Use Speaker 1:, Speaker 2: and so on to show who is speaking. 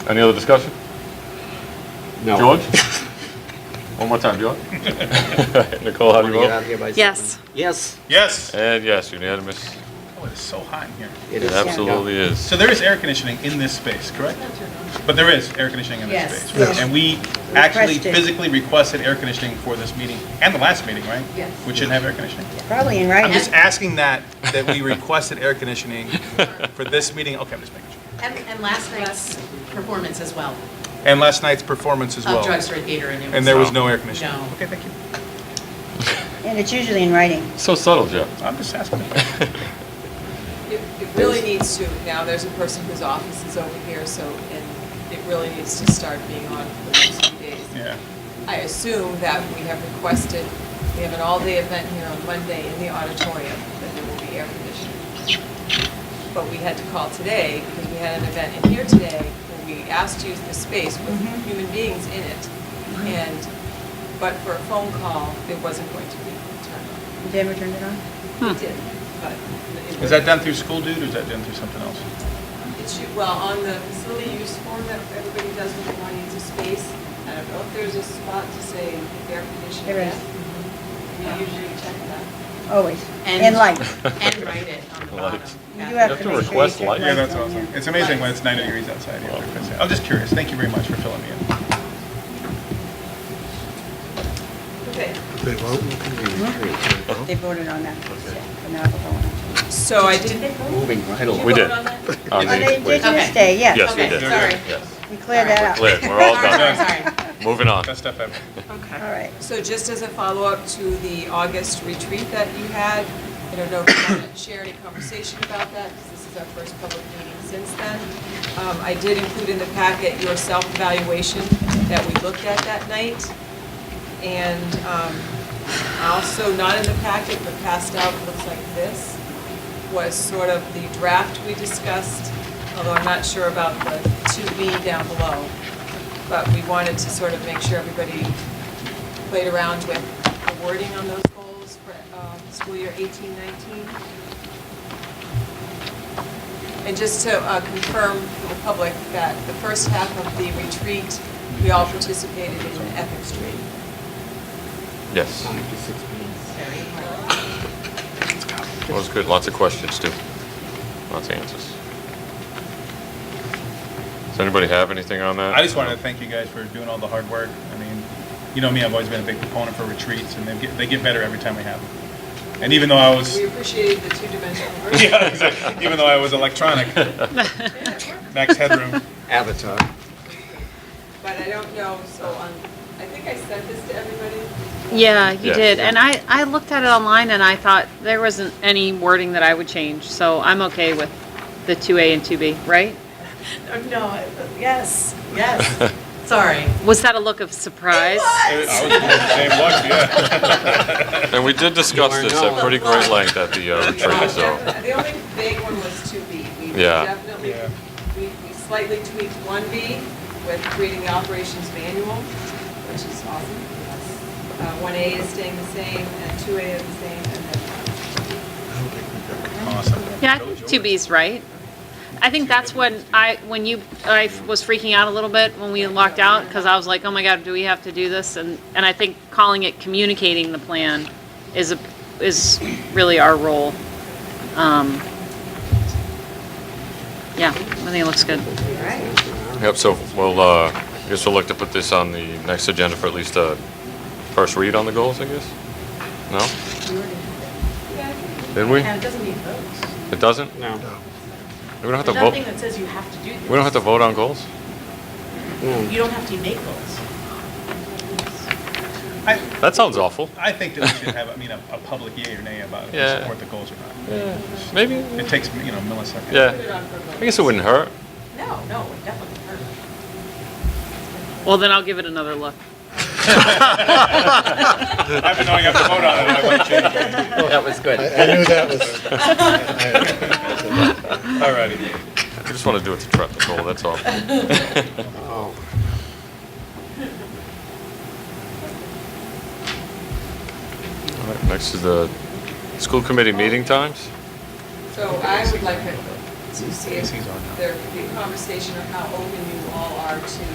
Speaker 1: Any other discussion?
Speaker 2: No.
Speaker 1: George? One more time, George. Nicole, how do
Speaker 2: Wanna
Speaker 1: you
Speaker 2: get
Speaker 1: vote?
Speaker 2: out of here by
Speaker 3: Yes.
Speaker 2: seven. Yes,
Speaker 4: Yes.
Speaker 1: And yes, unanimous.
Speaker 4: Oh, it's so hot in here.
Speaker 2: it
Speaker 1: It
Speaker 2: is.
Speaker 1: absolutely is.
Speaker 4: So there is air conditioning in this space, correct? But there is air conditioning in
Speaker 5: Yes.
Speaker 4: this space. right? And we actually
Speaker 5: Requested.
Speaker 4: physically requested air conditioning for this meeting and the last meeting, right?
Speaker 5: Yes.
Speaker 4: We shouldn't have air conditioning.
Speaker 5: Probably in
Speaker 4: I'm just
Speaker 5: writing.
Speaker 4: asking that, that we requested air conditioning for this meeting. Okay, I'm just making sure.
Speaker 6: And, and last night's performance as well,
Speaker 4: And last night's performance as
Speaker 6: of
Speaker 4: well.
Speaker 6: Drugstore Theater, and it was.
Speaker 4: And there was no air conditioning.
Speaker 6: No.
Speaker 4: Okay, thank you.
Speaker 5: And it's usually in writing.
Speaker 1: So subtle, Jeff.
Speaker 4: I'm just asking.
Speaker 7: It it really needs to, now there's a person whose office is over here, so, and it really needs to start being on for the next few days.
Speaker 4: Yeah.
Speaker 7: I assume that we have requested, we have an all-day event here on Monday in the auditorium, that there will be air conditioning. But we had to call today, because we had an event in here today, where we asked to use the space
Speaker 4: Mm-hmm.
Speaker 7: with human beings in it. And, but for a phone call, it wasn't going to be turned on.
Speaker 5: You ever turned it on?
Speaker 7: It did, but. it
Speaker 4: Is that done through school dude or is that done through something else?
Speaker 7: It should, well, on the facility use form that everybody does when they want to use a space, I don't know if there's a spot to say air conditioning.
Speaker 5: There is. Uh-huh.
Speaker 7: You usually check that.
Speaker 5: Always.
Speaker 6: And-
Speaker 5: In light.
Speaker 6: And write it on the bottom.
Speaker 1: Lights.
Speaker 5: You do
Speaker 6: Yeah.
Speaker 5: have
Speaker 1: have
Speaker 5: to
Speaker 1: to
Speaker 5: make sure you
Speaker 1: request
Speaker 5: turn
Speaker 1: light.
Speaker 5: the
Speaker 4: Yeah, that's
Speaker 5: lights on,
Speaker 4: awesome.
Speaker 5: yeah.
Speaker 4: It's amazing when it's 90 degrees outside. you have to fix it. I'm just curious. Thank you very much for filling me in.
Speaker 7: Okay,
Speaker 5: They voted on that. But now we're going on to-
Speaker 7: so I did.
Speaker 2: Moving right along.
Speaker 1: We did.
Speaker 7: vote on that?
Speaker 1: On
Speaker 5: On the
Speaker 1: the- wait.
Speaker 5: Indigenous
Speaker 6: Okay.
Speaker 5: Day, yes.
Speaker 1: Yes, we
Speaker 6: Okay,
Speaker 1: did.
Speaker 6: sorry.
Speaker 1: Yes.
Speaker 5: We cleared that up.
Speaker 1: Clear, we're all
Speaker 6: Sorry,
Speaker 1: done.
Speaker 6: sorry.
Speaker 1: Moving on.
Speaker 4: Best stuff ever.
Speaker 5: All right.
Speaker 7: So just as a follow-up to the August retreat that you had, I don't know if you want to share any conversation about that, because this is our first public meeting since then. Um, I did include in the packet your self-evaluation that we looked at that night. And um, also, not in the packet, but passed out, looks like this, was sort of the draft we discussed, although I'm not sure about the 2B down below. But we wanted to sort of make sure everybody played around with the wording on those goals for um, school year 18, 19. And just to uh, confirm for the public that the first half of the retreat, we all participated in an ethics training.
Speaker 1: Yes.
Speaker 7: Very important.
Speaker 1: That was good. Lots of questions, too. Lots of answers. Does anybody have anything on that?
Speaker 4: I just wanted to thank you guys for doing all the hard work. I mean, you know me, I've always been a big proponent for retreats, and they get, they get better every time we have them. And even though I was,
Speaker 7: We appreciated the two-dimensional version.
Speaker 4: yeah, exactly. even though I was electronic, max headroom.
Speaker 2: Avatar.
Speaker 7: But I don't know, so um, I think I sent this to everybody.
Speaker 3: Yeah, you
Speaker 1: Yeah.
Speaker 3: did. And I, I looked at it online and I thought there wasn't any wording that I would change, so I'm okay with the 2A and 2B, right?
Speaker 6: Oh, No, I- yes, yes, sorry.
Speaker 3: Was that a look of surprise?
Speaker 4: I was in the same luck, yeah.
Speaker 1: And we did discuss
Speaker 2: You are
Speaker 1: this at
Speaker 2: known.
Speaker 1: pretty great length at the uh, retreat, so.
Speaker 7: The only big one was two B. We
Speaker 1: Yeah.
Speaker 7: definitely,
Speaker 4: Yeah.
Speaker 7: we we slightly tweaked one B with creating the operations manual, which is awesome. One A is staying the same, and two A is the same, and then
Speaker 4: Awesome.
Speaker 3: Yeah, I think 2B's right. I think that's when I, when you, I was freaking out a little bit when we locked out, because I was like, oh my God, do we have to do this? And, and I think calling it communicating the plan is a, is really our role. Um, Yeah, I think it looks good.
Speaker 1: Yep, so we'll, uh, I guess we'll look to put this on the next agenda for at least a first read on the goals, I guess? No? Did we?
Speaker 6: And it doesn't need votes.
Speaker 1: It doesn't?
Speaker 2: No.
Speaker 1: We don't have to
Speaker 6: There's nothing
Speaker 1: vote,
Speaker 6: that says you have to do this.
Speaker 1: we don't have to vote on goals?
Speaker 6: You don't have to make votes.
Speaker 4: I,
Speaker 1: That sounds awful.
Speaker 4: I think that we should have, I mean, a, a public yay or nay about if
Speaker 1: Yeah.
Speaker 4: we support the goals or not.
Speaker 1: Maybe,
Speaker 4: It takes, you know, milliseconds.
Speaker 7: put it
Speaker 1: yeah.
Speaker 7: on for
Speaker 1: I
Speaker 7: vote.
Speaker 1: guess it wouldn't hurt.
Speaker 7: No, no, it definitely hurt.
Speaker 3: Well, then I'll give it another look.
Speaker 4: I've been knowing I have to vote on it, I wouldn't change it.
Speaker 2: That was good.
Speaker 8: I knew that was.
Speaker 4: All righty.
Speaker 1: I just want to do it to trap the goal, that's all.
Speaker 2: Oh.
Speaker 1: All right, Next is the school committee meeting times.
Speaker 7: So I would like to to see
Speaker 4: AC's on now.
Speaker 7: if there could be a conversation of how open you all are to